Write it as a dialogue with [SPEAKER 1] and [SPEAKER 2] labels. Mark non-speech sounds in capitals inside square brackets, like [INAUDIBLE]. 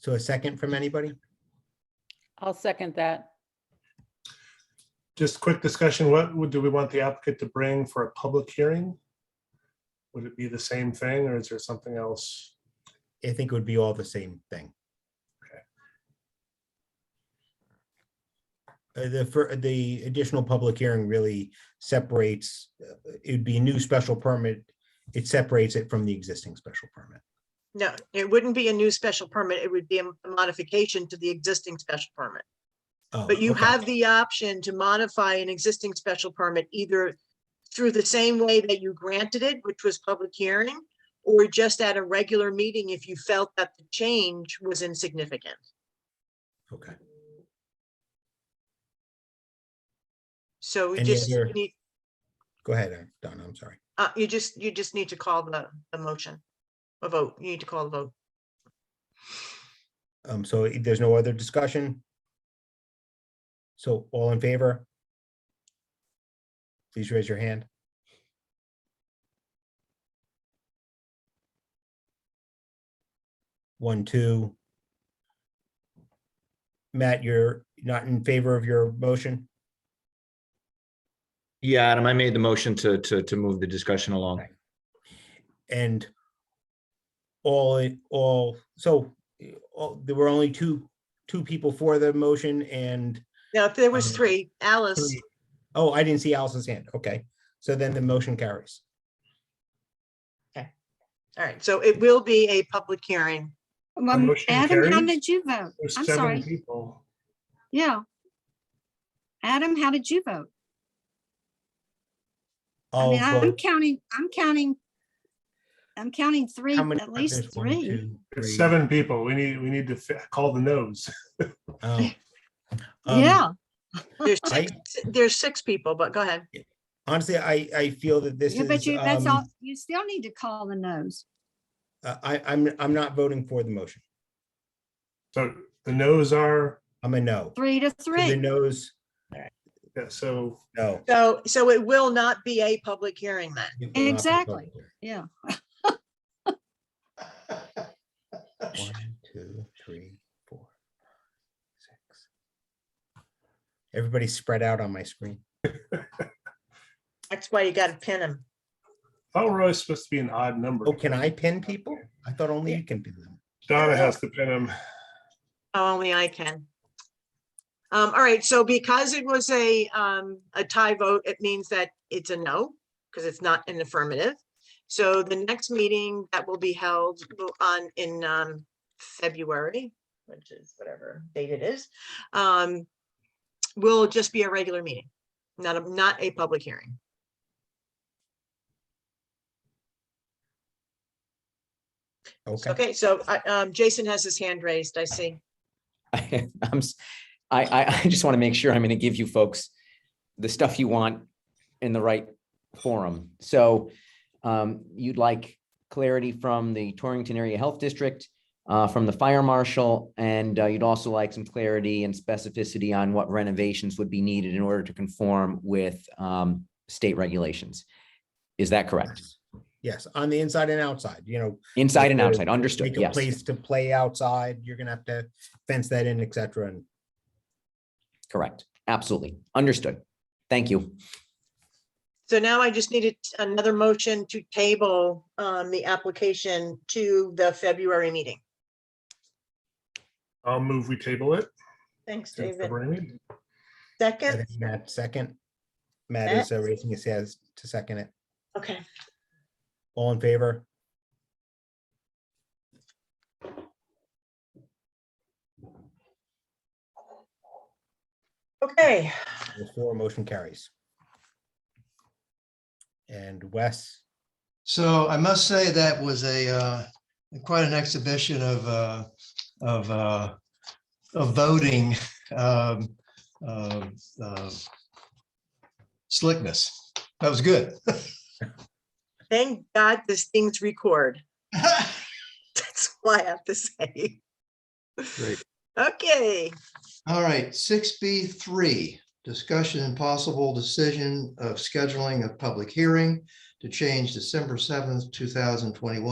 [SPEAKER 1] So a second from anybody?
[SPEAKER 2] I'll second that.
[SPEAKER 3] Just quick discussion, what would, do we want the applicant to bring for a public hearing? Would it be the same thing or is there something else?
[SPEAKER 1] I think it would be all the same thing. Uh, The, for, the additional public hearing really separates, uh, it'd be a new special permit. It separates it from the existing special permit.
[SPEAKER 4] No, it wouldn't be a new special permit. It would be a a modification to the existing special permit.
[SPEAKER 1] Oh,
[SPEAKER 4] But you
[SPEAKER 1] okay.
[SPEAKER 4] have the option to modify an existing special permit either through the same way that you granted it, which was public hearing, or just at a regular meeting if you felt that the change was insignificant.
[SPEAKER 1] Okay,
[SPEAKER 4] So you
[SPEAKER 1] Any
[SPEAKER 4] just,
[SPEAKER 1] other-
[SPEAKER 4] need-
[SPEAKER 1] go ahead, uh, Donna, I'm sorry.
[SPEAKER 4] uh, you just, you just need to call the, the motion. A vote, you need to call the vote.
[SPEAKER 1] Um, so i- there's no other discussion? So all in favor? Please raise your hand. One, two. Matt, you're not in favor of your motion?
[SPEAKER 5] Yeah, Adam, I made the motion to, to, to move the discussion along.
[SPEAKER 1] Right. And all, in- all, so eh, all- there were only two, two people for the motion and
[SPEAKER 4] Now, if there was
[SPEAKER 1] Um,
[SPEAKER 4] three, Alice,
[SPEAKER 1] Three. Oh, I didn't see Alice's hand. Okay, so then the motion carries.
[SPEAKER 4] all right, so it will be a public hearing.
[SPEAKER 6] Um,
[SPEAKER 3] motion
[SPEAKER 6] Adam, how
[SPEAKER 3] carries.
[SPEAKER 6] did you vote?
[SPEAKER 3] There's
[SPEAKER 6] I'm
[SPEAKER 3] seven
[SPEAKER 6] sorry.
[SPEAKER 3] people.
[SPEAKER 6] Yeah. Adam, how did you vote? I
[SPEAKER 1] I'll
[SPEAKER 6] mean, I'm
[SPEAKER 1] vote.
[SPEAKER 6] counting, I'm counting, I'm counting three,
[SPEAKER 1] How many-
[SPEAKER 6] at least
[SPEAKER 1] there's one,
[SPEAKER 6] three.
[SPEAKER 1] two,
[SPEAKER 3] There's
[SPEAKER 1] three.
[SPEAKER 3] seven people. We need, we need to fi- call the nose.
[SPEAKER 1] Oh. Um,
[SPEAKER 6] Yeah.
[SPEAKER 4] There's
[SPEAKER 1] I-
[SPEAKER 4] six, there's six people, but go ahead.
[SPEAKER 1] Honestly, I, I feel that this
[SPEAKER 6] Yeah,
[SPEAKER 1] is,
[SPEAKER 6] but you, that's all,
[SPEAKER 1] um,
[SPEAKER 6] you still need to call the nose.
[SPEAKER 1] I, I'm, I'm not voting for the motion.
[SPEAKER 3] So the nose are,
[SPEAKER 1] I'm a no.
[SPEAKER 6] Three to
[SPEAKER 1] The
[SPEAKER 6] three.
[SPEAKER 1] no's,
[SPEAKER 3] yeah, so
[SPEAKER 1] no.
[SPEAKER 4] So, so it will not be a public hearing then.
[SPEAKER 1] It will not be
[SPEAKER 6] Exactly.
[SPEAKER 1] voted.
[SPEAKER 6] Yeah.
[SPEAKER 1] One, two, three, four, six. Everybody's spread out on my screen.
[SPEAKER 4] That's why you gotta pin them.
[SPEAKER 3] I thought we're always oh, supposed to be an odd number.
[SPEAKER 1] Oh, can I pin people? I thought only you can pin them.
[SPEAKER 3] Donna has to pin them.
[SPEAKER 4] Oh, Only I can. Um, all right, so because it was a, um, a tie vote, it means that it's a no, because it's not an affirmative. So the next meeting that will be held will- on, in, um, February, which is whatever date it is, um, will just be a regular meeting, not a, not a public hearing.
[SPEAKER 1] Okay,
[SPEAKER 4] Okay, so, I- um, Jason has his hand raised, I see.
[SPEAKER 7] [LAUGHS] I'm, s- I, I- [LAUGHS] I just want to make sure I'm going to give you folks the stuff you want in the right forum. So um, you'd like clarity from the Torrington Area Health District, uh, from the fire marshal, and uh, you'd also like some clarity and specificity on what renovations would be needed in order to conform with um, state regulations. Is that correct?
[SPEAKER 1] Yes. Yes, on the inside and outside, you know,
[SPEAKER 7] Inside and
[SPEAKER 1] to
[SPEAKER 7] outside, understood,
[SPEAKER 1] make a
[SPEAKER 7] yes.
[SPEAKER 1] place to play outside, you're gonna have to fence that in, et cetera, and
[SPEAKER 7] Correct, absolutely, understood. Thank you.
[SPEAKER 4] So now I just needed another motion to table um the application to the February meeting.
[SPEAKER 3] I'll move, we table it.
[SPEAKER 4] Thanks,
[SPEAKER 3] to
[SPEAKER 4] David.
[SPEAKER 3] February meeting.
[SPEAKER 1] I
[SPEAKER 4] Second,
[SPEAKER 1] think Matt second. Matt
[SPEAKER 4] Matt?
[SPEAKER 1] is uh, raising his hand to second it.
[SPEAKER 4] okay,
[SPEAKER 1] All in favor?
[SPEAKER 4] okay.
[SPEAKER 1] The floor motion carries. And Wes,
[SPEAKER 8] So I must say that was a, uh, quite an exhibition of, uh, of, uh, of voting, um, uh, uh, slickness. That was good. [LAUGHS]
[SPEAKER 4] Thank God this thing's record. [LAUGHS] That's all I have to say.
[SPEAKER 5] Great.
[SPEAKER 4] Okay,
[SPEAKER 8] All right, six B three, discussion and possible decision of scheduling a public hearing to change December seventh, two thousand twenty-one